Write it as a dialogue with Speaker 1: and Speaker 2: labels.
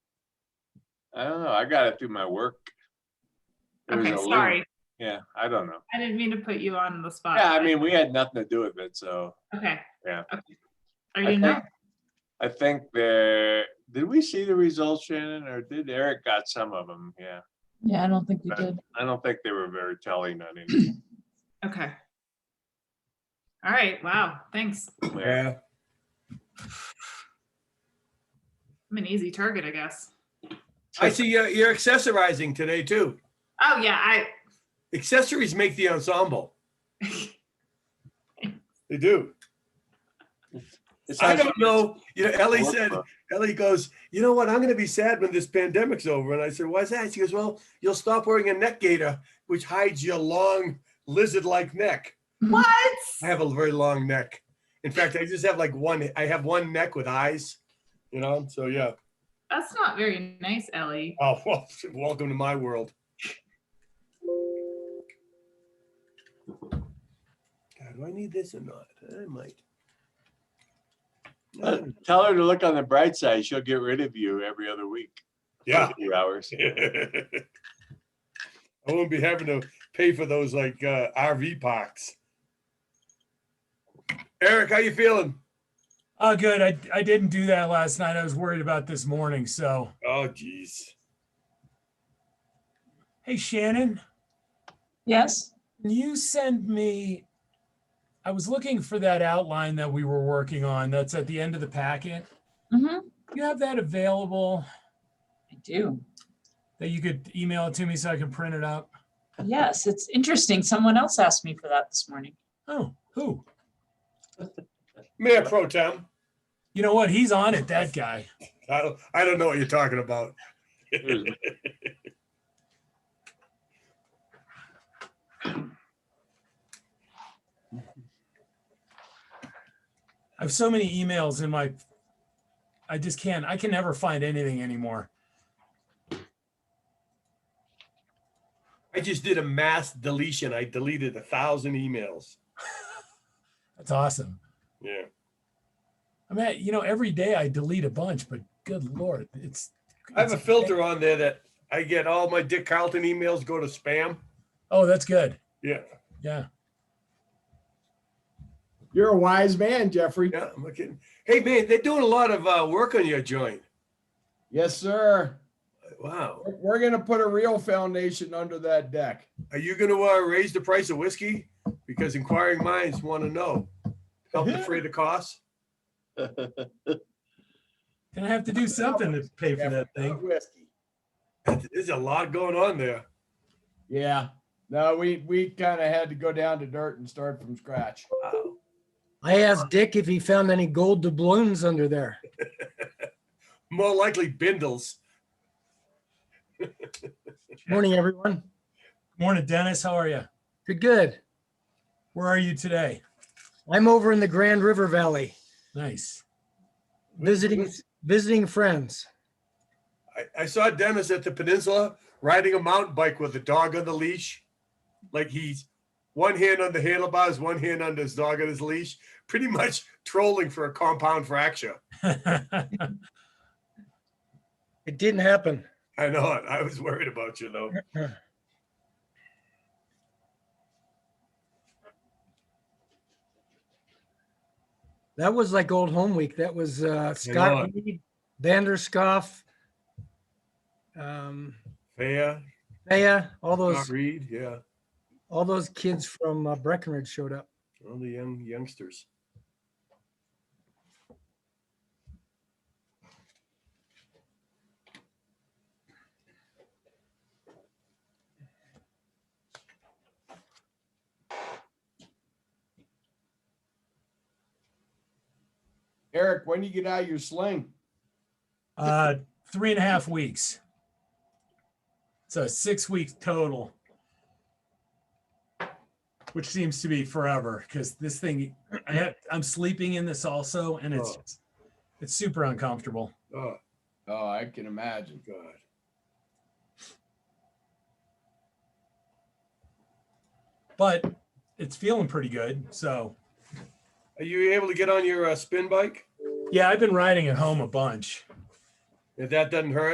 Speaker 1: I don't know. I got it through my work. It was
Speaker 2: Okay,
Speaker 1: a loop.
Speaker 2: sorry. Uh,
Speaker 1: Yeah, I don't know.
Speaker 2: I didn't mean to put you on the spot.
Speaker 1: Yeah, I
Speaker 2: but-
Speaker 1: mean, we had nothing to do with it, so
Speaker 2: Okay.
Speaker 1: Yeah.
Speaker 2: Okay. Are
Speaker 1: I
Speaker 2: you not?
Speaker 1: think, I think there, did we see the results, Shannon, or did Eric got some of them? Yeah.
Speaker 3: Yeah, I don't think we
Speaker 1: But-
Speaker 3: did.
Speaker 1: I don't think they were very telling on any.
Speaker 2: Okay. All right, wow, thanks.
Speaker 1: yeah.
Speaker 2: I'm
Speaker 4: Yeah,
Speaker 2: an easy target, I guess.
Speaker 4: I see you're, you're accessorizing today too.
Speaker 2: Oh, yeah, I,
Speaker 4: Accessories make the ensemble. They do.
Speaker 1: It's
Speaker 4: I
Speaker 1: not-
Speaker 4: don't know, you know, Ellie
Speaker 1: Work
Speaker 4: said,
Speaker 1: for-
Speaker 4: Ellie goes, you know what, I'm gonna be sad when this pandemic's over. And I said, why's that? She goes, well, you'll stop wearing a neck gaiter, which hides your long lizard-like neck.
Speaker 2: what?
Speaker 4: I have a very long neck. In fact, I just have like one, I have one neck with eyes, you know, so yeah.
Speaker 2: That's not very nice, Ellie.
Speaker 4: Oh, well, welcome to my world. God, do I need this or not? I might.
Speaker 1: Uh, Tell her to look on the bright side. She'll get rid of you every other week.
Speaker 4: Yeah.
Speaker 1: Two hours.
Speaker 4: I won't be having to pay for those like uh, RV parks. Eric, how you feeling?
Speaker 5: Oh, good. I, I didn't do that last night. I was worried about this morning. So,
Speaker 4: Oh, geez.
Speaker 5: hey, Shannon,
Speaker 3: Yes,
Speaker 5: can you send me? I was looking for that outline that we were working on. That's at the end of the packet.
Speaker 3: Mhm.
Speaker 5: You have that available
Speaker 3: I do.
Speaker 5: that you could email it to me so I can print it up?
Speaker 3: Yes, it's interesting. Someone else asked me for that this morning.
Speaker 5: Oh, who?
Speaker 4: Mayor Pro Tem.
Speaker 5: You know what? He's on it, that guy.
Speaker 4: I don't, I don't know what you're talking about.
Speaker 1: Here's-
Speaker 5: I have so many emails in my, I just can't, I can never find anything anymore.
Speaker 4: I just did a mass deletion. I deleted a thousand emails.
Speaker 5: That's awesome.
Speaker 4: Yeah.
Speaker 5: I mean, you know, every day I delete a bunch, but good Lord, it's.
Speaker 4: I have a
Speaker 5: it's-
Speaker 4: filter on there that I get all my Dick Carlton emails go to spam.
Speaker 5: Oh, that's good.
Speaker 4: Yeah.
Speaker 5: Yeah.
Speaker 6: You're a wise man, Jeffrey.
Speaker 4: Yeah, I'm looking. Hey, man, they're doing a lot of uh, work on your joint.
Speaker 6: Yes, sir.
Speaker 4: Wow.
Speaker 6: We're- We're gonna put a real foundation under that deck.
Speaker 4: Are you going to uh, raise the price of whiskey? Because inquiring minds want to know. Help defray the cost.
Speaker 5: Gonna have to do something to pay for that thing.
Speaker 6: Whiskey.
Speaker 4: There's a lot going on there.
Speaker 6: Yeah. No, we, we kind of had to go down to dirt and start from scratch.
Speaker 4: Wow.
Speaker 7: I asked Dick if he found any gold doubloons under there.
Speaker 4: More likely bindles.
Speaker 7: Morning, everyone.
Speaker 5: Morning, Dennis. How are you?
Speaker 7: Good, good.
Speaker 5: Where are you today?
Speaker 7: I'm over in the Grand River Valley
Speaker 5: Nice.
Speaker 7: visiting visiting friends.
Speaker 4: I, I saw Dennis at the peninsula riding a mountain bike with a dog on the leash. Like he's one hand on the handlebars, one hand on his dog on his leash, pretty much trolling for a compound fracture.
Speaker 7: It didn't happen.
Speaker 4: I know it. I was worried about you though.
Speaker 7: That was like old home week. That was uh, Scott
Speaker 4: on.
Speaker 7: Reed, Vanderscoff, um,
Speaker 4: Fair,
Speaker 7: Thea, all
Speaker 4: Scott
Speaker 7: those
Speaker 4: Reed, yeah,
Speaker 7: all those kids from uh, Breckenridge showed up.
Speaker 4: all the young youngsters.
Speaker 6: Eric, when you get out of your sling,
Speaker 5: Uh, three and a half weeks. So six weeks total. Which seems to be forever because this thing, I have, I'm sleeping in this also, and it's
Speaker 4: Oh.
Speaker 5: it's super uncomfortable.
Speaker 4: Oh
Speaker 6: oh, I can imagine.
Speaker 4: God.
Speaker 5: But it's feeling pretty good. So
Speaker 4: Are you able to get on your uh, spin bike?
Speaker 5: yeah, I've been riding at home a bunch.
Speaker 4: If that doesn't hurt.